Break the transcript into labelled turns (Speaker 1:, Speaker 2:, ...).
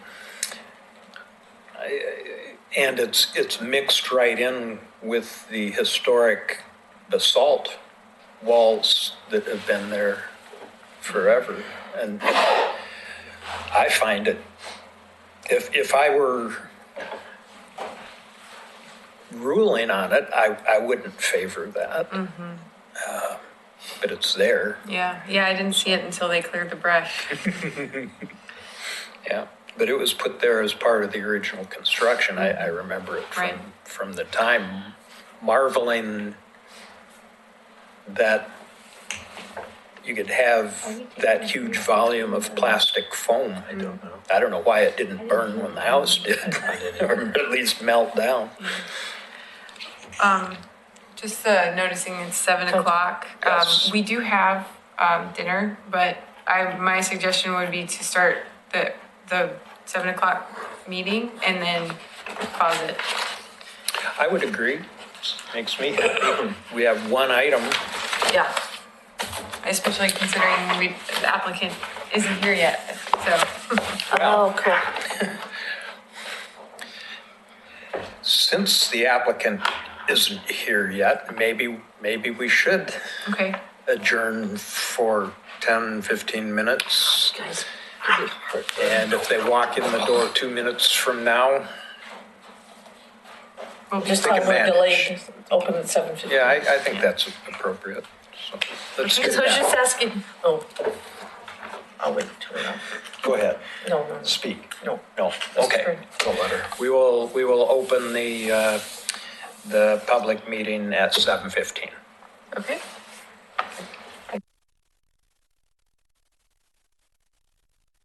Speaker 1: And it's, it's mixed right in with the historic basalt walls that have been there forever. And I find it, if, if I were ruling on it, I, I wouldn't favor that. Uh, But it's there,
Speaker 2: Yeah, yeah, I didn't see it until they cleared the brush.
Speaker 1: yeah. But it was put there as part of the original construction. I, I remember it from,
Speaker 2: Right.
Speaker 1: from the time marveling that you could have that huge volume of plastic foam. I don't know. I don't know why it didn't burn when the house did, or at least melt down.
Speaker 2: Just uh, noticing it's seven o'clock. Um,
Speaker 1: Yes.
Speaker 2: we do have um, dinner, but I my suggestion would be to start the the seven o'clock meeting and then pause it.
Speaker 1: I would agree. Makes me happy. We have one item.
Speaker 2: Yeah. Especially considering we the applicant isn't here yet, so
Speaker 3: Oh, cool.
Speaker 1: Since the applicant isn't here yet, maybe, maybe we should
Speaker 2: okay.
Speaker 1: adjourn for 10, 15 minutes.
Speaker 3: Guys,
Speaker 1: And if they walk in the door two minutes from now,
Speaker 2: We'll be
Speaker 3: just
Speaker 1: Take
Speaker 3: like we're
Speaker 1: advantage.
Speaker 3: delayed, open at seven fifty.
Speaker 1: yeah, I, I think that's appropriate. So let's do
Speaker 3: Because I was
Speaker 1: that.
Speaker 3: just asking, oh. I'll wait till we're off.
Speaker 1: Go ahead,
Speaker 3: No, no, no.
Speaker 1: speak.
Speaker 3: No.
Speaker 1: No, okay.
Speaker 4: Don't let her.
Speaker 1: We will, we will open the, uh, the public meeting at 7:15.
Speaker 2: Okay.